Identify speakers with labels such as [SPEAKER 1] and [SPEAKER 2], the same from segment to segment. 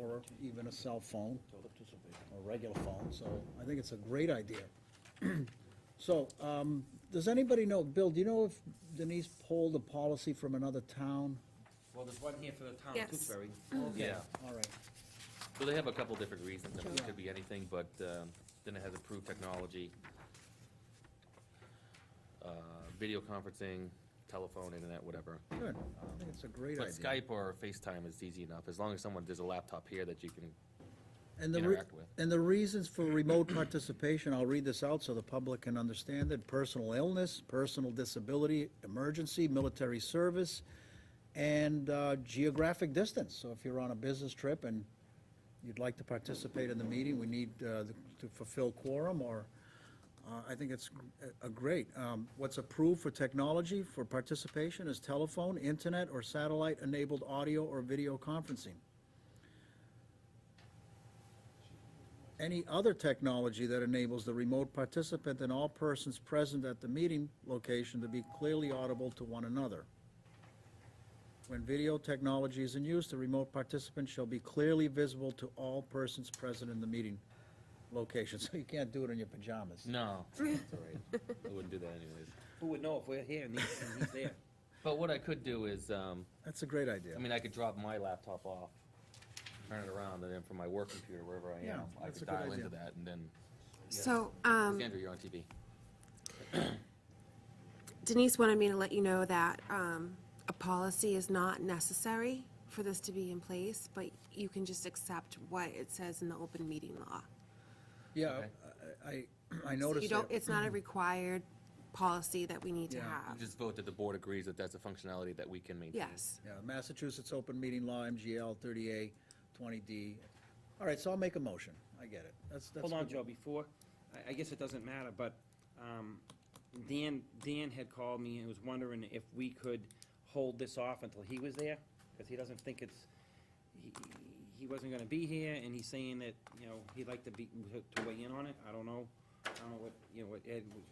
[SPEAKER 1] or even a cell phone, a regular phone, so I think it's a great idea. So, um, does anybody know, Bill, do you know if Denise pulled a policy from another town?
[SPEAKER 2] Well, there's one here for the town of
[SPEAKER 3] Yes.
[SPEAKER 2] Tewksbury.
[SPEAKER 4] Yeah,
[SPEAKER 1] All right,
[SPEAKER 4] so they have a couple different reasons, I mean, it could be anything, but um, then it has improved technology, uh, video conferencing, telephone, internet, whatever.
[SPEAKER 1] good, I think it's a great
[SPEAKER 4] But
[SPEAKER 1] idea.
[SPEAKER 4] Skype or FaceTime is easy enough, as long as someone, there's a laptop here that you can,
[SPEAKER 1] And the re-
[SPEAKER 4] interact with.
[SPEAKER 1] And the reasons for remote participation, I'll read this out so the public can understand it, personal illness, personal disability, emergency, military service, and uh, geographic distance. So if you're on a business trip and you'd like to participate in the meeting, we need uh, the- to fulfill quorum, or, uh, I think it's a a great. Um, What's approved for technology for participation is telephone, internet, or satellite-enabled audio or video conferencing. any other technology that enables the remote participant and all persons present at the meeting location to be clearly audible to one another. When video technology is in use, the remote participant shall be clearly visible to all persons present in the meeting location. So you can't do it in your pajamas.
[SPEAKER 4] no, it's all right, I wouldn't do that anyways.
[SPEAKER 2] Who would know if we're here and he's, and he's there?
[SPEAKER 4] But what I could do is, um,
[SPEAKER 1] That's a great idea.
[SPEAKER 4] I mean, I could drop my laptop off, turn it around, and then from my work computer, wherever I am,
[SPEAKER 1] Yeah,
[SPEAKER 4] I
[SPEAKER 1] that's a
[SPEAKER 4] could
[SPEAKER 1] good
[SPEAKER 4] dial into
[SPEAKER 1] idea.
[SPEAKER 4] that, and then,
[SPEAKER 3] So, um,
[SPEAKER 4] Sandra, you're on TV.
[SPEAKER 3] Denise wanted me to let you know that, um, a policy is not necessary for this to be in place, but you can just accept what it says in the open meeting law.
[SPEAKER 1] Yeah, I, I- I
[SPEAKER 3] So
[SPEAKER 1] noticed
[SPEAKER 3] You don't,
[SPEAKER 1] that.
[SPEAKER 3] it's not a required policy that we need to
[SPEAKER 1] Yeah,
[SPEAKER 3] have.
[SPEAKER 4] Just vote that the board agrees that that's a functionality that we can maintain.
[SPEAKER 3] Yes.
[SPEAKER 1] Yeah, Massachusetts Open Meeting Law, MGL 30A, 20D. All right, so I'll make a motion. I get it. That's, that's.
[SPEAKER 2] Hold on,
[SPEAKER 1] good.
[SPEAKER 2] Joe, before, I, I guess it doesn't matter, but, um, Dan, Dan had called me and was wondering if we could hold this off until he was there, because he doesn't think it's, he, he wasn't gonna be here, and he's saying that, you know, he'd like to be, to weigh in on it, I don't know, I don't know what, you know, what Ed, would-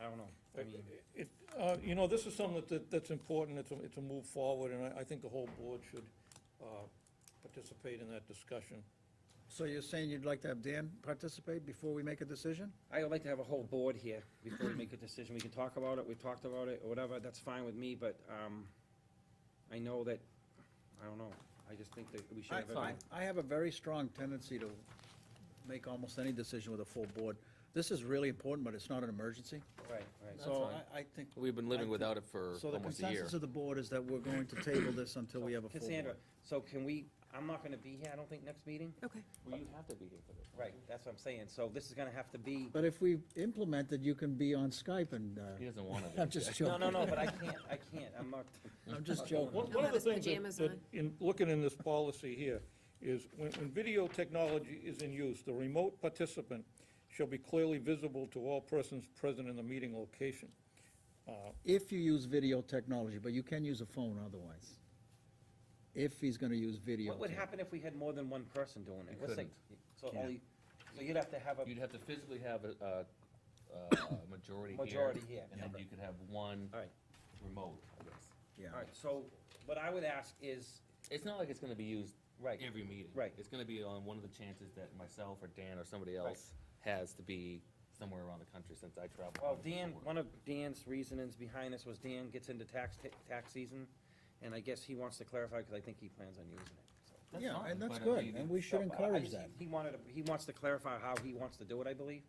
[SPEAKER 2] I don't know, I mean,
[SPEAKER 5] It, uh, you know, this is something that- that, that's important, it's a, it's a move forward, and I, I think the whole board should, uh, participate in that discussion.
[SPEAKER 1] So you're saying you'd like to have Dan participate before we make a decision?
[SPEAKER 2] I would like to have a whole board here before we make a decision, we can talk about it, we talked about it, or whatever, that's fine with me, but, um, I know that, I don't know, I just think that we should have. everyone-
[SPEAKER 1] I have a very strong tendency to make almost any decision with a full board. This is really important, but it's not an emergency.
[SPEAKER 2] Right, right.
[SPEAKER 1] So
[SPEAKER 4] fine.
[SPEAKER 1] I, I think,
[SPEAKER 4] We've been
[SPEAKER 1] I
[SPEAKER 4] living
[SPEAKER 1] think-
[SPEAKER 4] without it for
[SPEAKER 1] so the
[SPEAKER 4] almost a year.
[SPEAKER 1] consensus of the board is that we're going to table this until we have a full
[SPEAKER 2] Cassandra,
[SPEAKER 1] board.
[SPEAKER 2] so can we, I'm not gonna be here, I don't think, next meeting?
[SPEAKER 3] Okay.
[SPEAKER 4] Well, you have to be here for this.
[SPEAKER 2] Right, that's what I'm saying, so this is gonna have to be,
[SPEAKER 1] But if we implement it, you can be on Skype and, uh,
[SPEAKER 4] He doesn't want to.
[SPEAKER 1] I'm just
[SPEAKER 2] no,
[SPEAKER 1] joking.
[SPEAKER 2] no, no, but I can't, I can't, I'm not,
[SPEAKER 1] I'm just joking.
[SPEAKER 5] One one
[SPEAKER 3] have
[SPEAKER 5] of the
[SPEAKER 3] his
[SPEAKER 5] things
[SPEAKER 3] pajamas
[SPEAKER 5] that- that,
[SPEAKER 3] on.
[SPEAKER 5] in, looking in this policy here, is when, when video technology is in use, the remote participant shall be clearly visible to all persons present in the meeting location.
[SPEAKER 2] Mm-hmm.
[SPEAKER 1] If you use video technology, but you can use a phone otherwise. If he's gonna use video.
[SPEAKER 2] what would
[SPEAKER 1] tech-
[SPEAKER 2] happen if we had more than one person doing it?
[SPEAKER 4] You
[SPEAKER 2] Let's say- So only, so you'd have to have a,
[SPEAKER 4] You'd have to physically have a, a, a majority here.
[SPEAKER 2] Majority here.
[SPEAKER 4] And then you could have one
[SPEAKER 2] all right,
[SPEAKER 4] remote, I guess.
[SPEAKER 1] Yeah.
[SPEAKER 2] all right, so what I would ask is,
[SPEAKER 4] It's not like it's gonna be used
[SPEAKER 2] Right.
[SPEAKER 4] every meeting.
[SPEAKER 2] Right.
[SPEAKER 4] It's gonna be on one of the chances that myself or Dan or somebody else has to be somewhere around the country since I travel.
[SPEAKER 2] Well,
[SPEAKER 4] for
[SPEAKER 2] Dan,
[SPEAKER 4] work.
[SPEAKER 2] one of Dan's reasonings behind this was Dan gets into tax, ta- tax season, and I guess he wants to clarify, because I think he plans on using it, so.
[SPEAKER 4] That's
[SPEAKER 1] Yeah,
[SPEAKER 4] fine,
[SPEAKER 1] and that's
[SPEAKER 4] but I
[SPEAKER 1] good,
[SPEAKER 4] mean,
[SPEAKER 1] and we should
[SPEAKER 2] So, I- I
[SPEAKER 1] encourage
[SPEAKER 2] just-
[SPEAKER 1] that.
[SPEAKER 2] He wanted, to- he wants to clarify how he wants to do it, I believe,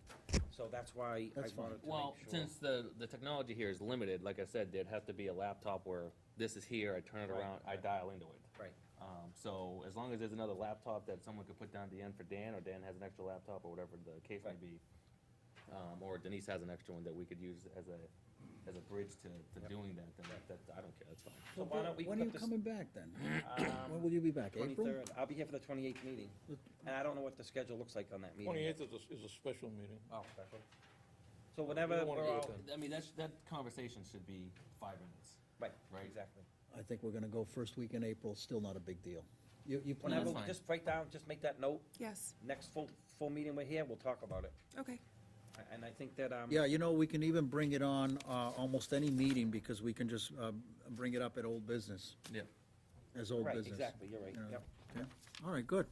[SPEAKER 2] so that's why I
[SPEAKER 1] That's fine.
[SPEAKER 2] wanted to
[SPEAKER 4] Well,
[SPEAKER 2] make sure.
[SPEAKER 4] since the, the technology here is limited, like I said, there'd have to be a laptop where this is here, I turn it
[SPEAKER 2] Right,
[SPEAKER 4] around, I
[SPEAKER 2] right.
[SPEAKER 4] dial into it.
[SPEAKER 2] Right,
[SPEAKER 4] Um, so as long as there's another laptop that someone could put down at the end for Dan, or Dan has an extra laptop, or whatever the case may
[SPEAKER 2] Right.
[SPEAKER 4] be, um, or Denise has an extra one that we could use as a, as a bridge to, to doing that, then that, that, I don't care, that's fine.
[SPEAKER 2] so why don't we
[SPEAKER 1] When are you
[SPEAKER 2] put this,
[SPEAKER 1] coming back then? When
[SPEAKER 2] um,
[SPEAKER 1] will you be back? April?
[SPEAKER 2] twenty-third, I'll be here for the twenty-eighth meeting, and I don't know what the schedule looks like on that meeting. yet.
[SPEAKER 5] Twenty-eighth is a, is a special meeting.
[SPEAKER 2] Oh, special. So whenever,
[SPEAKER 5] wanna
[SPEAKER 2] we're
[SPEAKER 5] do it
[SPEAKER 2] all-
[SPEAKER 5] then.
[SPEAKER 4] I mean, that's, that conversation should be five minutes.
[SPEAKER 2] right,
[SPEAKER 4] Right.
[SPEAKER 2] exactly.
[SPEAKER 1] I think we're gonna go first week in April, still not a big deal. You, you plan,
[SPEAKER 2] Whenever,
[SPEAKER 4] that's fine.
[SPEAKER 2] just write down, just make that note,
[SPEAKER 3] Yes,
[SPEAKER 2] next full, full meeting we're here, we'll talk about it.
[SPEAKER 3] okay.
[SPEAKER 2] A- And I think that, um,
[SPEAKER 1] yeah, you know, we can even bring it on, uh, almost any meeting, because we can just, uh, bring it up at old business,
[SPEAKER 4] Yeah.
[SPEAKER 1] as old
[SPEAKER 2] right,
[SPEAKER 1] business.
[SPEAKER 2] exactly, you're right,
[SPEAKER 1] Yeah.
[SPEAKER 2] yep.
[SPEAKER 1] Yeah. All right, good,